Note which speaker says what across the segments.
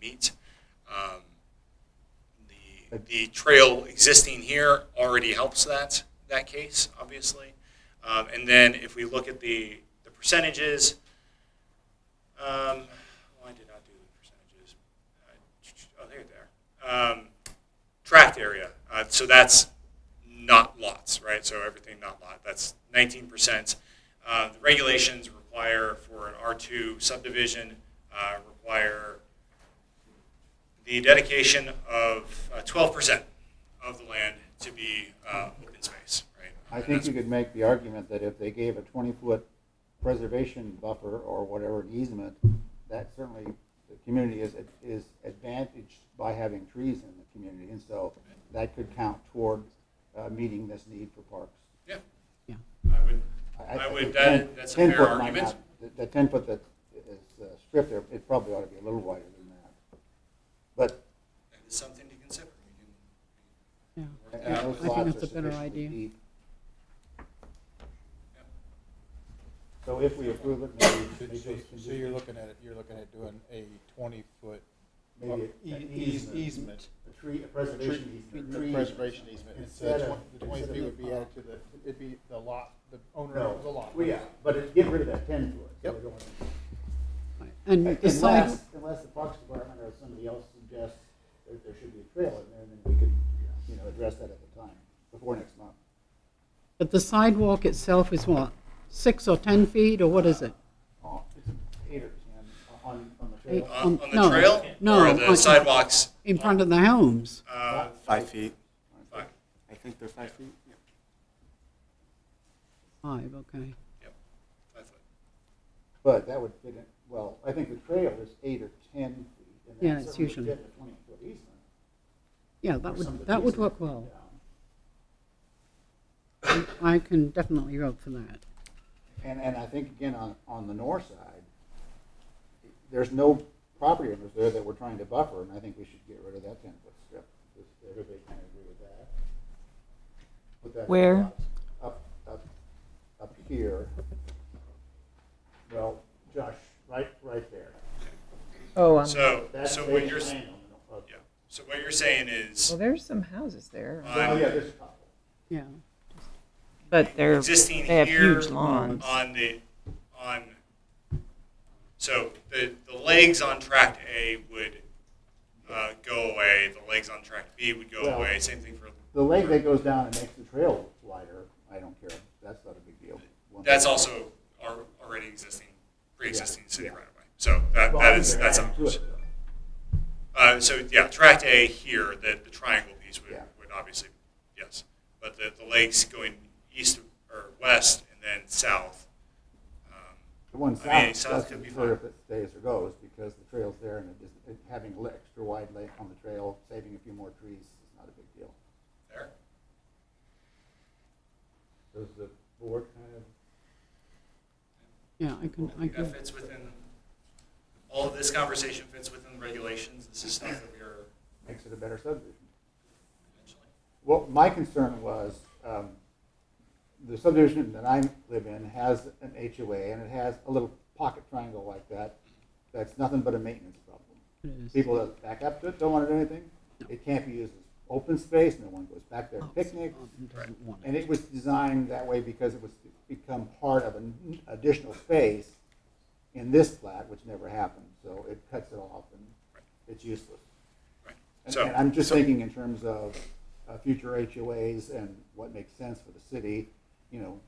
Speaker 1: meet. Um, The, the trail existing here already helps that, that case, obviously. Um, And then if we look at the, the percentages, um, why did I do the percentages? Uh, Oh, there they are. Um, Tract area, uh, so that's not lots, right? So everything not lot, that's nineteen percent. Uh, the regulations require for an R two subdivision, uh, require the dedication of uh, twelve percent of the land to be, uh, open space, right?
Speaker 2: I think
Speaker 1: That's-
Speaker 2: you could make the argument that if they gave a twenty-foot preservation buffer or whatever an easement, that certainly, the community is, is advantaged by having trees in the community, and so that could count toward, uh, meeting this need for parks.
Speaker 1: Yeah.
Speaker 3: Yeah.
Speaker 1: I would,
Speaker 2: I-
Speaker 1: I
Speaker 2: think
Speaker 1: would,
Speaker 2: 10
Speaker 1: that, that's a
Speaker 2: 10
Speaker 1: fair
Speaker 2: foot might
Speaker 1: argument.
Speaker 2: not- the- The ten foot that is uh, stripped there, it probably ought to be a little wider than that. But
Speaker 1: That is something to consider. We can-
Speaker 3: Yeah.
Speaker 2: and
Speaker 1: Yeah,
Speaker 2: those
Speaker 1: I
Speaker 3: think
Speaker 2: lots
Speaker 3: that's
Speaker 2: are
Speaker 3: a better
Speaker 2: sufficiently
Speaker 3: idea.
Speaker 2: deep.
Speaker 1: yeah.
Speaker 2: So if we approve it, maybe, maybe
Speaker 4: So
Speaker 2: those
Speaker 4: so you're
Speaker 2: conditions,
Speaker 4: looking at, it. you're looking at doing a twenty-foot
Speaker 2: maybe
Speaker 4: E-
Speaker 2: an
Speaker 4: eas-
Speaker 2: easement.
Speaker 4: easement.
Speaker 2: A tree, a preservation
Speaker 4: A
Speaker 2: easement.
Speaker 4: tree- a Preservation easement,
Speaker 2: Instead
Speaker 4: instead
Speaker 2: of-
Speaker 4: of, the twenty
Speaker 2: instead
Speaker 4: feet
Speaker 2: of-
Speaker 4: would be added to the, it'd be the lot, the owner
Speaker 2: No,
Speaker 4: of the lot.
Speaker 2: well, yeah, but it- get rid of that ten foot. so
Speaker 4: Yep.
Speaker 2: we don't want
Speaker 3: And
Speaker 2: to-
Speaker 3: the side,
Speaker 2: Unless, unless the Parks Department or somebody else suggests that there should be a trail in there, then we could, you know, address that at the time, before next month.
Speaker 3: but the sidewalk itself is what, six or 10 feet, or what is it?
Speaker 2: Oh, it's eight or ten on, on the
Speaker 3: Eight.
Speaker 2: trail.
Speaker 1: On, on the
Speaker 3: Um, No,
Speaker 1: trail?
Speaker 3: no,
Speaker 1: Or
Speaker 3: on-
Speaker 1: the sidewalks?
Speaker 3: In front of the homes?
Speaker 1: Uh,
Speaker 5: Five feet.
Speaker 1: five.
Speaker 5: I think they're five feet. Yeah.
Speaker 3: Five, okay.
Speaker 1: Yep. Five foot.
Speaker 2: But that would fit in, well, I think the trail is eight or ten feet. and that
Speaker 3: Yeah, it's
Speaker 2: certainly would
Speaker 3: usually-
Speaker 2: fit in a Twenty foot easement.
Speaker 3: Yeah,
Speaker 2: or
Speaker 3: that
Speaker 2: some of the
Speaker 3: would, that would
Speaker 2: easement
Speaker 3: work well.
Speaker 2: down.
Speaker 3: I I can definitely vote for that.
Speaker 2: And, and I think again, on, on the north side, there's no property owners there that we're trying to buffer, and I think we should get rid of that ten foot strip. Does everybody kind of agree with that? Put that?
Speaker 6: Where?
Speaker 2: Up, up, up here. Well, Josh, right, right there.
Speaker 6: Oh, um,
Speaker 1: So,
Speaker 2: That's
Speaker 1: so
Speaker 2: the
Speaker 1: what you're, s-
Speaker 2: plan on the north-
Speaker 1: yeah, so what you're saying is,
Speaker 6: well, there's some houses there,
Speaker 2: Oh, yeah,
Speaker 1: on,
Speaker 2: there's a couple.
Speaker 3: Yeah.
Speaker 6: but they're,
Speaker 1: Existing
Speaker 6: they have
Speaker 1: here
Speaker 6: huge lawns.
Speaker 1: on the, on, so the, the legs on tract A would, uh, go away, the legs on tract B would go
Speaker 2: Well-
Speaker 1: away, same thing for,
Speaker 2: The leg that goes down and makes the trail wider, I don't care, that's not a big deal. Once-
Speaker 1: that's also al- already existing, pre-existing city
Speaker 2: yeah.
Speaker 1: right away. So that,
Speaker 2: Well, I
Speaker 1: that
Speaker 2: think
Speaker 1: is,
Speaker 2: they're
Speaker 1: that's
Speaker 2: adding to
Speaker 1: ours.
Speaker 2: it, though.
Speaker 1: Uh, so yeah, tract A here, the, the triangle piece would,
Speaker 2: Yeah.
Speaker 1: would obviously, yes. But the, the lakes going east or west and then south. Um,
Speaker 2: The one
Speaker 1: I mean,
Speaker 2: south
Speaker 1: south could
Speaker 2: doesn't
Speaker 1: be
Speaker 2: matter if
Speaker 1: fine.
Speaker 2: it stays or goes, because the trail's there and it is, it- having an extra wide lane on the trail, saving a few more trees is not a big deal.
Speaker 1: There.
Speaker 2: Does the board kind of?
Speaker 3: Yeah, I can,
Speaker 1: I
Speaker 3: I
Speaker 1: think
Speaker 3: can,
Speaker 1: that fits within, all of this conversation fits within the regulations. This is stuff that we are
Speaker 2: Makes it a better subdivision.
Speaker 1: eventually.
Speaker 2: Well, my concern was, um, the subdivision that I live in has an HOA and it has a little pocket triangle like that. That's nothing but a maintenance problem.
Speaker 3: it is.
Speaker 2: People that back up to it don't want to do anything. It can't be used as open space, no one goes back there
Speaker 3: Oh,
Speaker 2: and picnics.
Speaker 3: Doesn't want
Speaker 2: And
Speaker 3: it.
Speaker 2: it was designed that way because it was to become part of an additional space in this plat, which never happened, so it cuts it off and it's useless.
Speaker 1: Right.
Speaker 2: And-
Speaker 1: So-
Speaker 2: And I'm just thinking in terms of uh, future HOAs and what makes sense for the city, you know,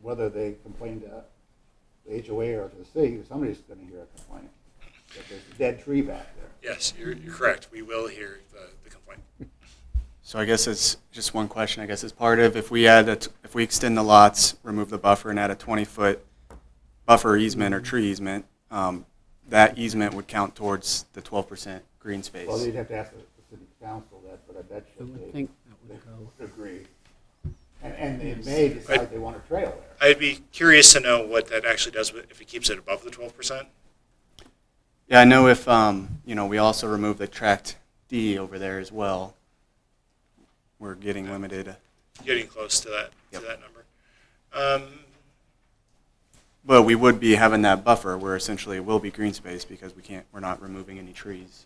Speaker 2: whether they complain to the HOA or to the city, somebody's gonna hear a complaint. That there's a dead tree back there.
Speaker 1: Yes, you're, you're correct. We will hear the, the complaint.
Speaker 5: So I guess it's just one question. I guess it's part of if we add a t if we extend the lots, remove the buffer, and add a 20 foot buffer easement or tree easement, um, that easement would count towards the 12% green space.
Speaker 2: Well, they'd have to ask the the city council that, but I bet
Speaker 3: I
Speaker 2: you
Speaker 3: would
Speaker 2: they
Speaker 3: think that
Speaker 2: they
Speaker 3: would go.
Speaker 2: would agree. And, and they may decide they want a trail there.
Speaker 1: I'd be curious to know what that actually does with- if it keeps it above the 12%.
Speaker 5: yeah, I know if um, you know we also remove the tract D over there as well, we're getting limited.
Speaker 1: Getting close to that,
Speaker 5: Yep.
Speaker 1: to that number. Um,
Speaker 5: But we would be having that buffer where essentially it will be green space because we can't we're not removing any trees.